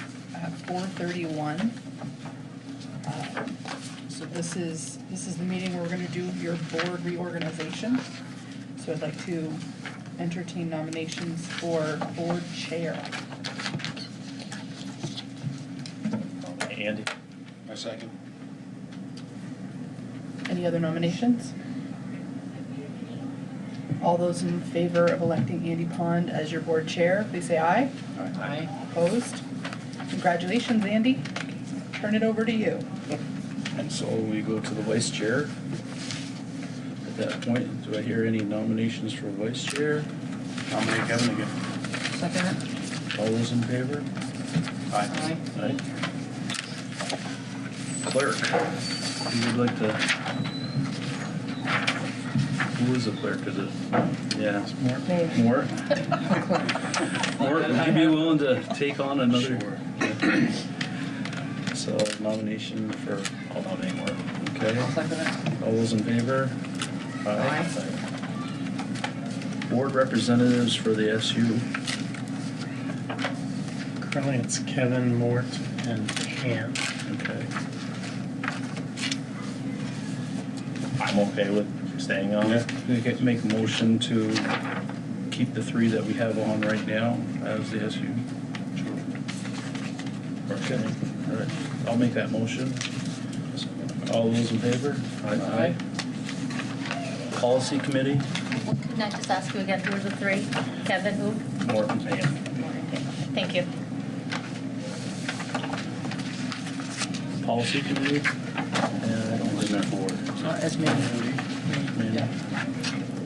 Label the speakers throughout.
Speaker 1: is, Um, this is the meeting where we're gonna do your board reorganization. So I'd like to entertain nominations for board chair.
Speaker 2: Andy?
Speaker 3: My second.
Speaker 1: Any other nominations? All those in favor of electing Andy Pond as your board chair, please say aye.
Speaker 2: Aye.
Speaker 1: Opposed? Congratulations, Andy. Turn it over to you.
Speaker 3: And so we go to the vice chair. At that point, do I hear any nominations for vice chair? Nominate Kevin again.
Speaker 4: Second.
Speaker 3: All those in favor?
Speaker 4: Aye.
Speaker 3: Aye. Clerk, you would like to? Who is the clerk? Is it? Yeah.
Speaker 1: Me.
Speaker 3: Mort? Mort, would you be willing to take on another? So nomination for,
Speaker 2: I'll nominate Mark.
Speaker 3: okay.
Speaker 4: Second.
Speaker 3: All those in favor? Board representatives for the SU.
Speaker 5: Currently, it's Kevin, Mort, and Pam.
Speaker 3: Okay.
Speaker 2: I'm okay with staying on. it.
Speaker 3: Make it- Make a motion to keep the three that we have on right now as the SU. Okay, all right. I'll make that motion. All those in favor?
Speaker 2: Aye.
Speaker 3: Policy committee,
Speaker 6: Can I just ask you again, who are the three? Kevin, who?
Speaker 3: Morton, Pam.
Speaker 6: Thank you.
Speaker 3: Policy committee? And I don't remember. board.
Speaker 4: Uh, It's me.
Speaker 3: Mandy.
Speaker 4: Yeah.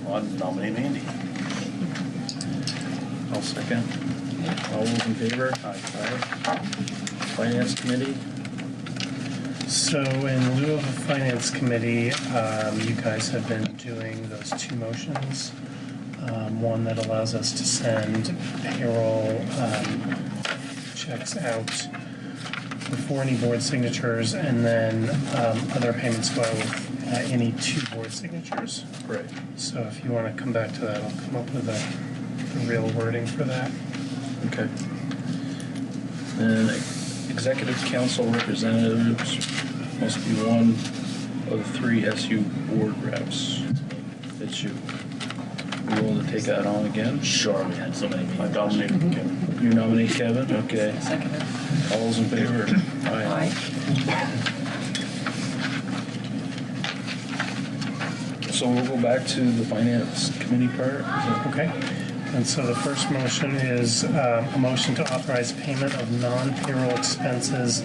Speaker 2: I'll nominate Andy.
Speaker 3: I'll second. All those in favor? Aye. Finance committee?
Speaker 5: So in lieu of a finance committee, um, you guys have been doing those two motions. Um, One that allows us to send payroll um, checks out before any board signatures, and then um, other payments go out with uh, any two board signatures.
Speaker 3: Right.
Speaker 5: So if you want to come back to that, I'll come up with a the real wording for that.
Speaker 3: Okay. And executive council representatives must be one of the three SU board reps. It's you. You willing to take that on again?
Speaker 2: Sure, we had so many
Speaker 3: I
Speaker 2: meetings.
Speaker 3: nominate Kevin. You nominate Kevin? Okay.
Speaker 4: Second.
Speaker 3: All those in favor?
Speaker 4: Aye.
Speaker 3: So we'll go back to the finance committee part. Is that-
Speaker 5: Okay, and so the first motion is um, a motion to authorize payment of non-payroll expenses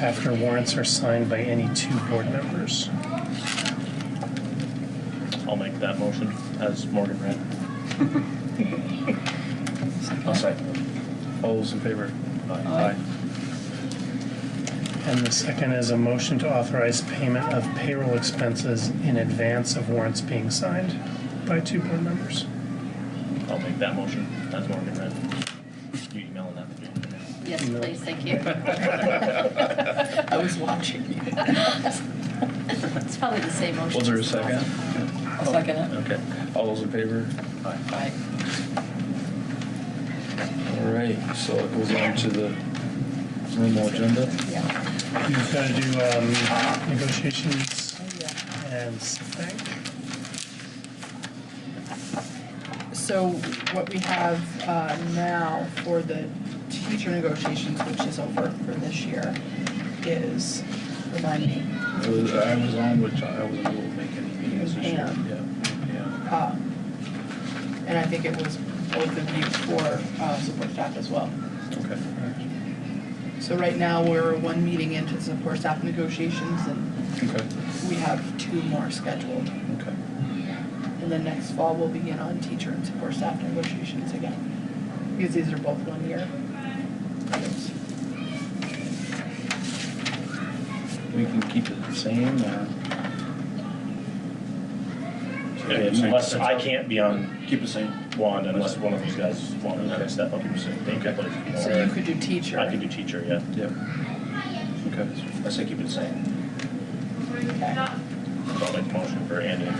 Speaker 5: after warrants are signed by any two board members.
Speaker 2: I'll make that motion as Morgan read.
Speaker 4: Second.
Speaker 2: I'll second.
Speaker 3: All those in favor?
Speaker 4: Aye.
Speaker 5: And the second is a motion to authorize payment of payroll expenses in advance of warrants being signed by two board members.
Speaker 2: I'll make that motion as Morgan read. You emailing that to me?
Speaker 6: Yes,
Speaker 5: No.
Speaker 6: please, thank you.
Speaker 1: I was watching.
Speaker 6: It's probably the same motion.
Speaker 3: Was there a
Speaker 6: as the last
Speaker 3: second?
Speaker 6: one.
Speaker 4: I'll second it.
Speaker 3: Okay. All those in favor?
Speaker 4: Aye.
Speaker 3: All right, so it goes on to the normal agenda.
Speaker 1: Yeah.
Speaker 5: You've got to do um, negotiations and thank.
Speaker 1: So what we have uh, now for the teacher negotiations, which is over for this year, is, remind me,
Speaker 3: I was- I was on, which I wasn't able to make any meetings this year. Yeah.
Speaker 1: um, and I think it was both of you for uh, support staff as well.
Speaker 3: yeah. Okay.
Speaker 1: So right now, we're one meeting into support staff negotiations, and
Speaker 3: Okay,
Speaker 1: we have two more scheduled.
Speaker 3: okay.
Speaker 1: And then next fall, we'll begin on teacher and support staff negotiations again, because these are both one year. items.
Speaker 3: We can keep it the same, or?
Speaker 2: Unless I can't be on
Speaker 3: Keep it same.
Speaker 2: one unless one of these guys wanted to step up and say, thank you, but you know,
Speaker 1: So you could do teacher.
Speaker 2: I could do teacher, yeah.
Speaker 3: Yep. Okay.
Speaker 2: I say keep it the same.
Speaker 1: Okay.
Speaker 2: So I'll make the motion for Andy.